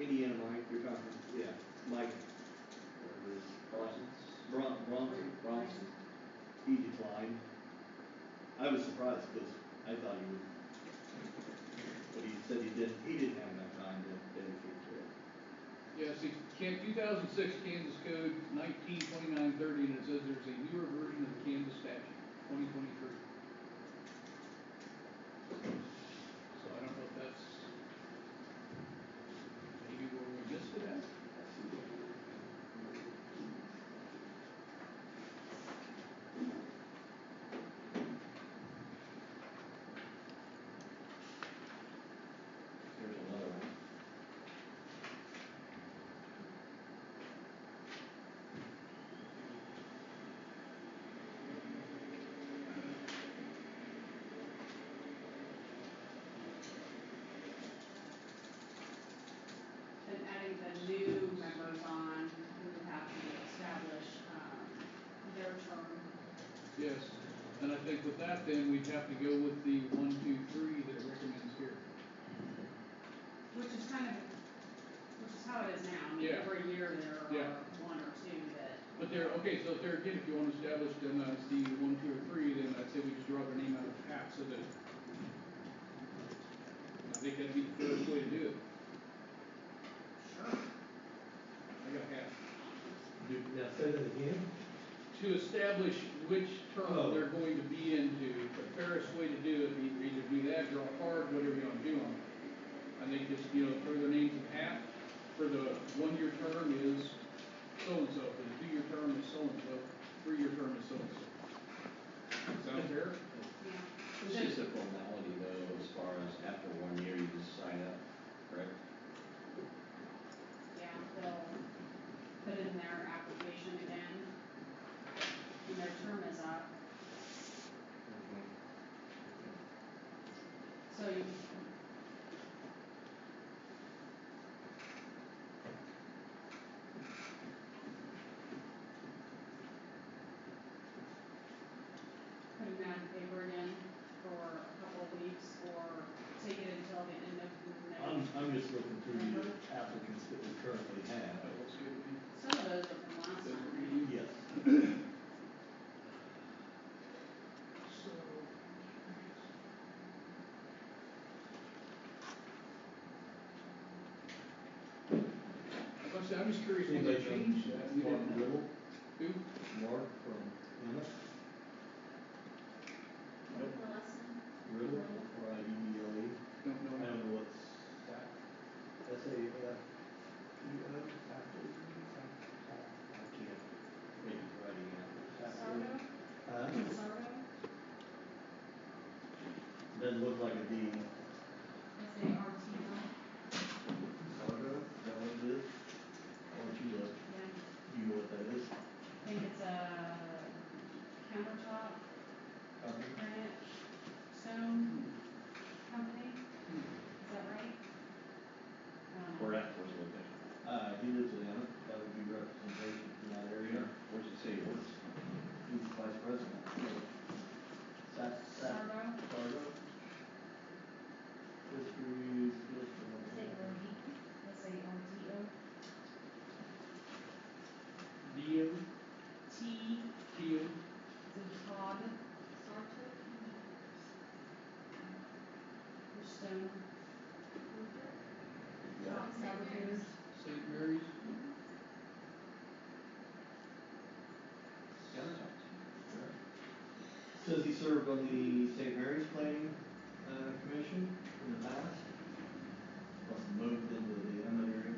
Indiana, Mike, you're talking, Yeah. Mike Bron, Bronson, Bronson, he declined. I was surprised, cause I thought he would. But he said he didn't, he didn't have enough time to dedicate to it. Yeah, see, Can, two thousand six Kansas Code nineteen twenty-nine thirty, and it says there's a newer version of the Kansas statute, twenty twenty-three. So I don't know if that's maybe where we missed it at. Here's another one. And adding the new members on who would have to establish, um, their term. Yes, and I think with that then, we'd have to go with the one, two, three that it recommends here. Which is kind of, which is how it is now, I mean, Yeah. every year there Yeah. are one or two that, But there, okay, so if there again, if you want to establish them as the one, two, or three, then I'd say we just draw their name out of the hat so that. I think that'd be the fairest way to do it. sure, I got half. Now, say that again? To establish which Oh. term they're going to be into, the fairest way to do it, either, either do that, draw a card, whatever you want to do on it. I think just, you know, throw their names in half, for the one-year term is so-and-so, for the two-year term is so-and-so, three-year term is so-and-so. Sound fair? yeah. It's just a formality though, as far as after one year you just sign up, correct? Yeah, they'll put in their application again. And their term is up, so you. Putting that on paper again for a couple of weeks or take it until the end of I'm, next. I'm just looking through the applicants that we currently That have. looks good to me. Some of those are from last That's time. pretty easy. Yes. So. I must say, I'm just curious, when they changed that, we Mark didn't know. Ribble, Who? Mark from Emmett, Nope. Ribble, R I B B L E. Don't I know. don't know what's that. S A F E O. I can't read writing out. Um, Sardo, Huh? Sardo, Doesn't look like a D. S A R T O, Sardo, is that what it is? Or do you, know- yeah, I do you know what that is? think it's a countertop granite stone company, is that right? Um, Correct, where's it located? Uh, he lives in Emmett, that would be representation from that area. Where's it say yours? He was vice president. Sat, sat, Sardo, Sardo. History is Say Rohit, S A R T O. Dio, T, Keo, Is it Todd? Sartre? for stone, Todd Sartre. St. Mary's. Says he served on the St. Mary's Planning, uh, Commission in the past. Plus moved into the Emmett area.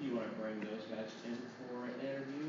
You wanna bring those guys in for an interview Um,